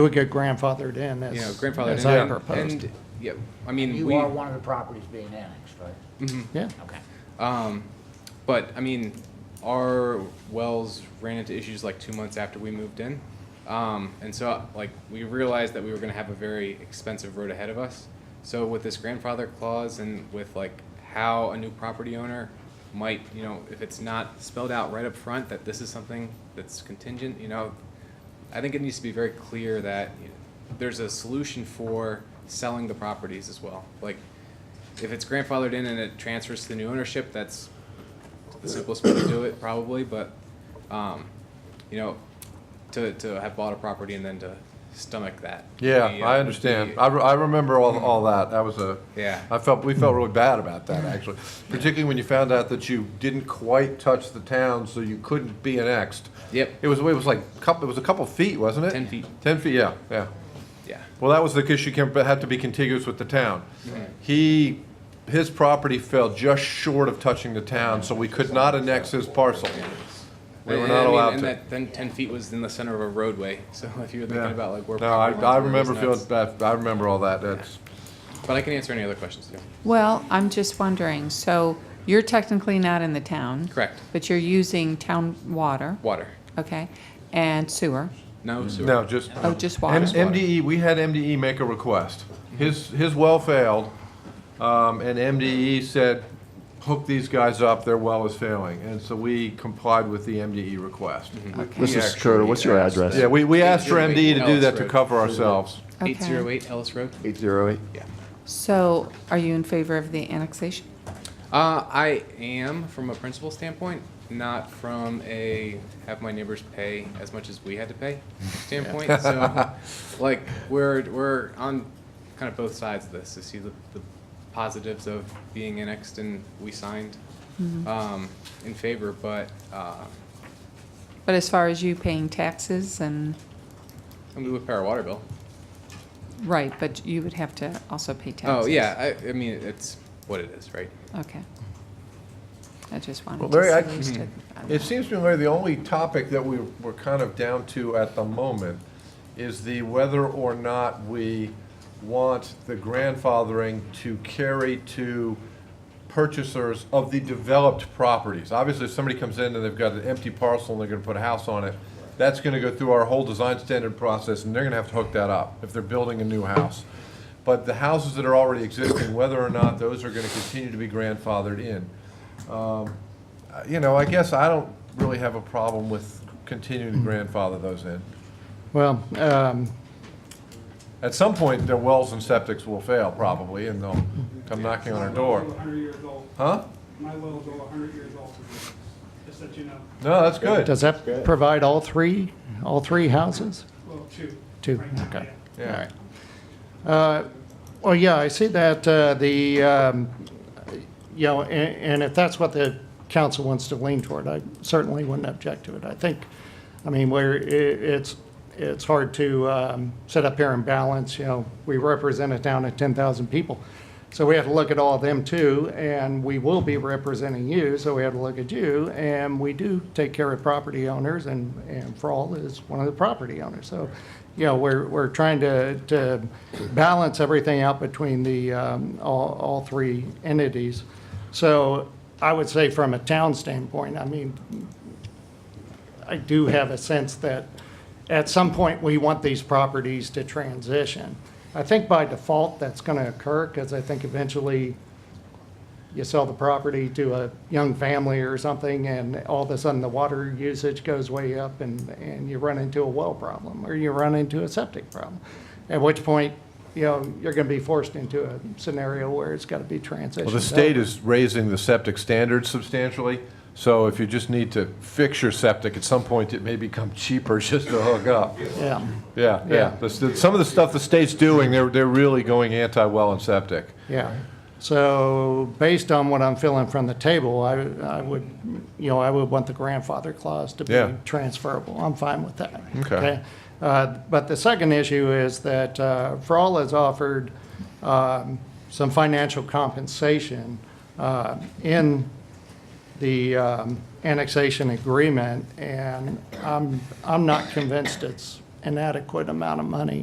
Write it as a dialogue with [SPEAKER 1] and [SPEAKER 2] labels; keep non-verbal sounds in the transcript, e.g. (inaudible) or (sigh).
[SPEAKER 1] It would get grandfathered in as.
[SPEAKER 2] you know, grandfathered.
[SPEAKER 1] As
[SPEAKER 2] in.
[SPEAKER 1] I
[SPEAKER 2] And-
[SPEAKER 1] proposed.
[SPEAKER 2] And, yeah, I mean, we,
[SPEAKER 3] You are one of the properties being annexed, right?
[SPEAKER 1] Yeah,
[SPEAKER 3] Okay.
[SPEAKER 2] um, but, I mean, our wells ran into issues like two months after we moved in. Um, and so, like, we realized that we were gonna have a very expensive road ahead of us. So with this grandfather clause and with like how a new property owner might, you know, if it's not spelled out right up front that this is something that's contingent, you know, I think it needs to be very clear that you know, there's a solution for selling the properties as well. Like, if it's grandfathered in and it transfers to the new ownership, that's the simplest way to do it probably, but, um, you know, to, to have bought a property and then to stomach that.
[SPEAKER 4] Yeah,
[SPEAKER 2] would be, uh,
[SPEAKER 4] I
[SPEAKER 2] would
[SPEAKER 4] understand.
[SPEAKER 2] be-
[SPEAKER 4] I, re- I remember all, all that. That was a.
[SPEAKER 2] Yeah.
[SPEAKER 4] I felt, we felt really bad about that, actually. Particularly when you found out that you didn't quite touch the town, so you couldn't be annexed.
[SPEAKER 2] Yep.
[SPEAKER 4] It was, it was like, couple, it was a couple feet, wasn't it?
[SPEAKER 2] 10 feet.
[SPEAKER 4] Ten feet, yeah, yeah.
[SPEAKER 2] Yeah,
[SPEAKER 4] Well, that was the issue, Kemp, but had to be contiguous with the town. He, his property fell just short of touching the town, so we could not annex his parcel. We were
[SPEAKER 2] And-
[SPEAKER 4] not
[SPEAKER 2] I mean,
[SPEAKER 4] allowed
[SPEAKER 2] and
[SPEAKER 4] to.
[SPEAKER 2] that- Then ten feet was in the center of a roadway, (laughs) so if you were
[SPEAKER 4] Yeah.
[SPEAKER 2] thinking about like where.
[SPEAKER 4] No, I,
[SPEAKER 2] property lines
[SPEAKER 4] I
[SPEAKER 2] were, it was
[SPEAKER 4] remember feeling
[SPEAKER 2] nuts.
[SPEAKER 4] bad. I remember all that. That's,
[SPEAKER 2] But I can answer any other questions too.
[SPEAKER 5] Well, I'm just wondering, so you're technically not in the town?
[SPEAKER 2] Correct.
[SPEAKER 5] But you're using town water,
[SPEAKER 2] Water,
[SPEAKER 5] okay, and sewer?
[SPEAKER 2] no sewer.
[SPEAKER 4] Mm. no, just.
[SPEAKER 5] Oh, just
[SPEAKER 4] M-
[SPEAKER 5] water? Mm-hmm.
[SPEAKER 4] MDE, we had MDE make a request. His, his well failed, um, and MDE said, hook these guys up, their well is failing. And so we complied with the MDE request.
[SPEAKER 5] Mm-hmm.
[SPEAKER 6] Mr. Security, what's your address?
[SPEAKER 4] Yeah, we, we asked for
[SPEAKER 2] Yeah, we-
[SPEAKER 4] MDE to do that to
[SPEAKER 2] Ellis
[SPEAKER 4] cover ourselves.
[SPEAKER 5] Okay.
[SPEAKER 2] Eight zero eight Ellis Road.
[SPEAKER 6] 808.
[SPEAKER 5] So are you in favor of the annexation?
[SPEAKER 2] Uh, I am from a principal standpoint, not from a have my neighbors pay as much as we had to pay standpoint. so, like, we're we're on kind of both sides of this to see the, the positives of being annexed and we signed um, in favor, but uh,
[SPEAKER 5] But as far as you paying taxes and,
[SPEAKER 2] and we would pay our water bill.
[SPEAKER 5] right, but you would have to also pay taxes?
[SPEAKER 2] Oh yeah, I, I mean it's what it is, right?
[SPEAKER 5] Okay. I just
[SPEAKER 4] Well,
[SPEAKER 5] wanted
[SPEAKER 4] Larry, I-
[SPEAKER 5] to see. if you
[SPEAKER 4] It
[SPEAKER 5] stood-
[SPEAKER 4] seems to me, Larry, the only topic that we, we're kind of down to at the moment is the whether or not we want the grandfathering to carry to purchasers of the developed properties. Obviously, if somebody comes in and they've got an empty parcel and they're gonna put a house on it, that's gonna go through our whole design standard process, and they're gonna have to hook that up if they're building a new house. But the houses that are already existing, whether or not those are gonna continue to be grandfathered in. Uh, You know, I guess I don't really have a problem with continuing to grandfather those in.
[SPEAKER 1] well, um,
[SPEAKER 4] At some point, their wells and septics will fail probably, and they'll come knocking on our door.
[SPEAKER 7] My well's over 100 years old.
[SPEAKER 4] Huh?
[SPEAKER 7] My well's over 100 years old, just that you know.
[SPEAKER 4] No, that's good.
[SPEAKER 1] does that provide all three, all three houses?
[SPEAKER 7] Well, two.
[SPEAKER 1] Two,
[SPEAKER 7] right now,
[SPEAKER 1] okay.
[SPEAKER 7] yeah.
[SPEAKER 4] Yeah.
[SPEAKER 1] All right. Uh, Well, yeah, I see that uh, the, um, you know, a- and if that's what the council wants to lean toward, I certainly wouldn't object to it. I think, I mean, where i- it's, it's hard to um, sit up here and balance, you know, we represent a town of 10,000 people. So we have to look at all of them too, and we will be representing you, so we have to look at you. And we do take care of property owners, and, and Frawl is one of the property owners. So, you know, we're, we're trying to, to balance everything out between the, um, all, all three entities. So I would say from a town standpoint, I mean, I do have a sense that at some point, we want these properties to transition. I think by default, that's going to occur because I think eventually you sell the property to a young family or something and all of a sudden the water usage goes way up and, and you run into a well problem or you run into a septic problem. At which point, you know, you're going to be forced into a scenario where it's got to be transitioned.
[SPEAKER 4] Well, the state is raising the septic standards substantially, so if you just need to fix your septic, at some point, it may become cheaper (laughs) just to hook up.
[SPEAKER 1] Yeah.
[SPEAKER 4] Yeah,
[SPEAKER 1] Yeah.
[SPEAKER 4] yeah. The st- Some of the stuff the state's doing, they're, they're really going anti-well and septic.
[SPEAKER 1] Yeah. So based on what I'm feeling from the table, I, I would, you know, I would want the grandfather clause to
[SPEAKER 4] Yeah.
[SPEAKER 1] be transferable. I'm fine with that.
[SPEAKER 4] Okay.
[SPEAKER 1] Uh, But the second issue is that uh, Frall has offered um, some financial compensation uh, in the um, annexation agreement, and I'm, I'm not convinced it's an adequate amount of money